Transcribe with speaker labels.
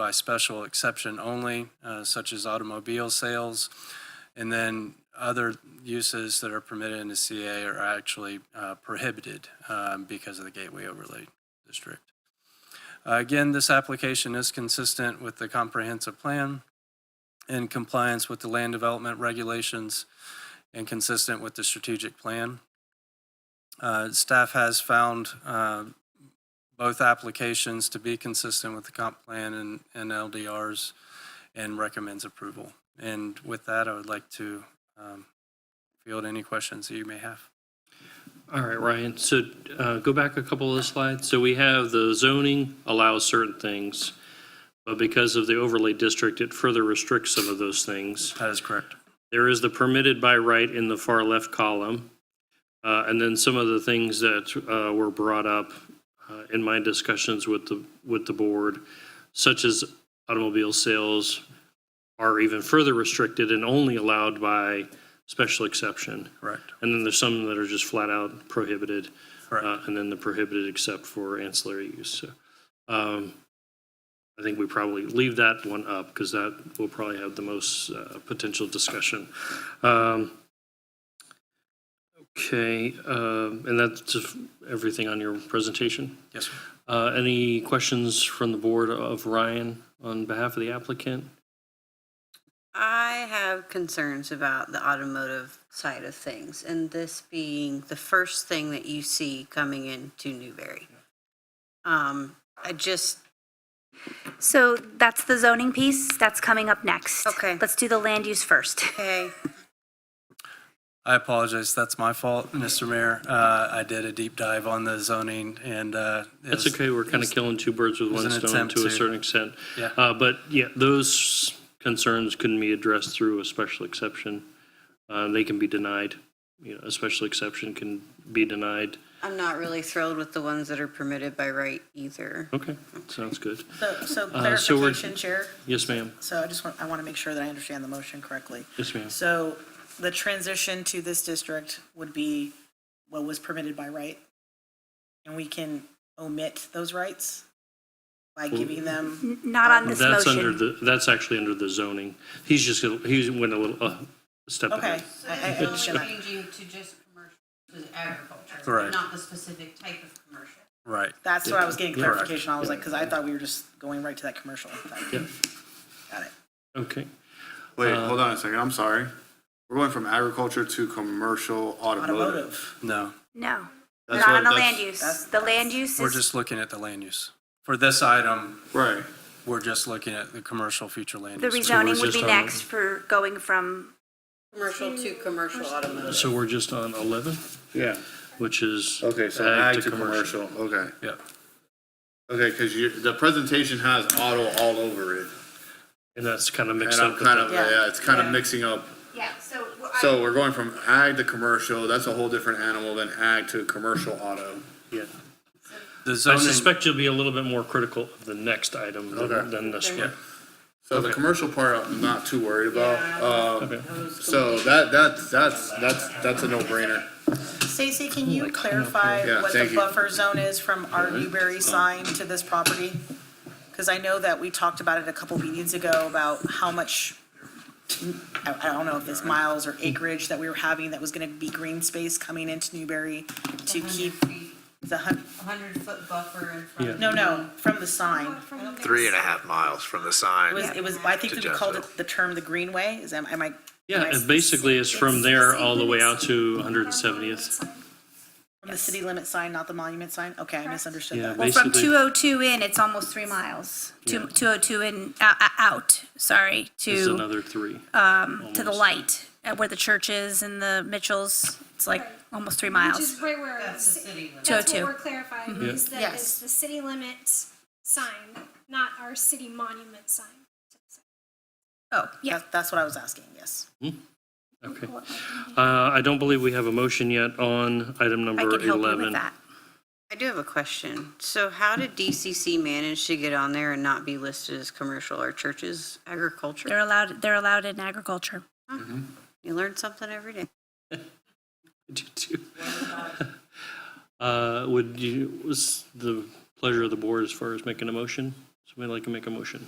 Speaker 1: by special exception only, uh, such as automobile sales. And then other uses that are permitted in the CA are actually uh, prohibited um, because of the gateway overlay district. Uh, Again, this application is consistent with the comprehensive plan in compliance with the land development regulations and consistent with the strategic plan. Uh, Staff has found uh, both applications to be consistent with the comp plan and and LDRs and recommends approval. And with that, I would like to um, field any questions that you may have.
Speaker 2: All right, Ryan, so uh, go back a couple of the slides. So we have the zoning allows certain things, but because of the overlay district, it further restricts some of those things.
Speaker 1: That is correct.
Speaker 2: There is the permitted by right in the far left column. Uh, And then some of the things that uh, were brought up uh, in my discussions with the, with the board, such as automobile sales, are even further restricted and only allowed by special exception.
Speaker 1: Correct.
Speaker 2: And then there's some that are just flat out prohibited.
Speaker 1: Correct.
Speaker 2: uh, And then the prohibited except for ancillary use. So, um, I think we probably leave that one up because that will probably have the most uh, potential discussion. Um, Okay, um, and that's just everything on your presentation.
Speaker 1: Yes, sir.
Speaker 2: Uh, Any questions from the board of Ryan on behalf of the applicant?
Speaker 3: I have concerns about the automotive side of things, and this being the first thing that you see coming into Newberry. Um, I just,
Speaker 4: So that's the zoning piece. That's coming up next.
Speaker 3: Okay.
Speaker 4: Let's do the land use first.
Speaker 3: okay,
Speaker 1: I apologize. That's my fault, Mr. Mayor. Uh, I did a deep dive on the zoning and. uh, it
Speaker 2: That's
Speaker 1: was-
Speaker 2: okay, we're kind of killing two birds with
Speaker 1: was
Speaker 2: one
Speaker 1: an
Speaker 2: stone
Speaker 1: attempt
Speaker 2: to a
Speaker 1: to-
Speaker 2: certain extent.
Speaker 1: Yeah.
Speaker 2: Uh, But yeah, those concerns can be addressed through a special exception. Uh, They can be denied, you know, a special exception can be denied.
Speaker 3: I'm not really thrilled with the ones that are permitted by right either.
Speaker 2: Okay, sounds good.
Speaker 5: So, so
Speaker 2: Uh, so we're-
Speaker 5: clarification, Chair.
Speaker 2: Yes, ma'am.
Speaker 5: So I just want, I want to make sure that I understand the motion correctly.
Speaker 2: Yes, ma'am.
Speaker 5: So the transition to this district would be what was permitted by right? And we can omit those rights by giving them,
Speaker 4: N- Not on this
Speaker 2: That's under
Speaker 4: motion.
Speaker 2: the, that's actually under the zoning. He's just, gonna- he went a little, uh, step
Speaker 5: okay,
Speaker 2: ahead.
Speaker 5: I, I understand that.
Speaker 6: Changing to just commercial, to agriculture.
Speaker 1: Correct.
Speaker 6: Not the specific type of commercial.
Speaker 1: Right.
Speaker 5: That's what I was getting
Speaker 1: Yeah. Correct.
Speaker 5: clarification. I was like, because I thought we were just going right to that commercial.
Speaker 2: Yeah.
Speaker 5: Got it.
Speaker 2: Okay,
Speaker 7: Wait, hold on a second. I'm sorry. We're going from agriculture to commercial automotive.
Speaker 5: Automotive.
Speaker 1: No,
Speaker 4: No,
Speaker 7: That's
Speaker 4: not
Speaker 7: what-
Speaker 4: on the
Speaker 7: that's-
Speaker 4: land use. The land use
Speaker 1: we're
Speaker 4: is,
Speaker 1: just looking at the land use. For this item,
Speaker 7: Right.
Speaker 1: we're just looking at the commercial future land
Speaker 4: the
Speaker 1: use.
Speaker 4: rezoning would
Speaker 2: just
Speaker 4: be
Speaker 2: on-
Speaker 4: next for going from,
Speaker 3: Commercial to commercial automotive.
Speaker 2: so we're just on 11,
Speaker 7: Yeah.
Speaker 2: which is.
Speaker 7: Okay, so
Speaker 2: ag
Speaker 7: ag to commercial. Okay.
Speaker 1: Yeah,
Speaker 7: Okay, because you, the presentation has auto all over it.
Speaker 2: And that's kind of
Speaker 7: And
Speaker 2: mixed
Speaker 7: I'm
Speaker 2: up. with
Speaker 7: kind of,
Speaker 2: that.
Speaker 5: Yeah.
Speaker 7: yeah, it's kind of mixing up.
Speaker 4: yeah, so.
Speaker 7: So we're going from ag to commercial. That's a whole different animal than ag to commercial auto.
Speaker 2: Yeah.
Speaker 1: the
Speaker 2: I
Speaker 1: zoning,
Speaker 2: suspect you'll be a little bit more critical of the next item than,
Speaker 7: Okay.
Speaker 2: than this one.
Speaker 7: So the commercial part, I'm not too worried about. Um,
Speaker 2: Okay.
Speaker 7: So that, that's, that's, that's, that's a no-brainer.
Speaker 5: Stacy, can you clarify
Speaker 7: Yeah,
Speaker 5: what the
Speaker 7: thank you.
Speaker 5: buffer zone is from our Newberry sign to this property? Because I know that we talked about it a couple meetings ago about how much, I, I don't know if it's miles or acreage that we were having that was gonna be green space coming into Newberry to keep the hun,
Speaker 6: Hundred foot buffer in front. of
Speaker 5: no, no, from the sign.
Speaker 8: three and a half miles from the sign.
Speaker 5: It was, it was, I think we
Speaker 8: To
Speaker 5: called it
Speaker 8: Jonesville.
Speaker 5: the term the greenway, is, am am I? am
Speaker 2: Yeah,
Speaker 5: I
Speaker 2: and basically it's from there all the way out to 170th.
Speaker 5: From the city limit sign, not the monument sign? Okay, I misunderstood
Speaker 2: Yeah,
Speaker 5: that.
Speaker 4: Well, from
Speaker 2: basically-
Speaker 4: 202 in, it's almost three miles. Two- 202 in, uh, uh, out, sorry,
Speaker 2: It's
Speaker 4: to,
Speaker 2: another three.
Speaker 4: um, to the light, uh, where the church is and the Mitchells. It's like almost three
Speaker 9: Which
Speaker 4: miles.
Speaker 9: is right where,
Speaker 6: That's the
Speaker 9: that's
Speaker 6: city limit.
Speaker 9: what
Speaker 4: 202.
Speaker 9: we're clarifying, is that
Speaker 5: Yes.
Speaker 9: it's the city limits sign, not our city monument sign.
Speaker 5: Oh, yeah. That's what I was asking, yes.
Speaker 2: Okay. Uh, I don't believe we have a motion yet on item
Speaker 4: I
Speaker 2: number
Speaker 4: can help you
Speaker 2: 11.
Speaker 4: with that.
Speaker 3: I do have a question. So how did DCC manage to get on there and not be listed as commercial or churches agriculture?
Speaker 4: They're allowed, they're allowed in agriculture.
Speaker 3: You learn something every day.
Speaker 2: Uh, would you, was the pleasure of the board as far as making a motion? Somebody like to make a motion?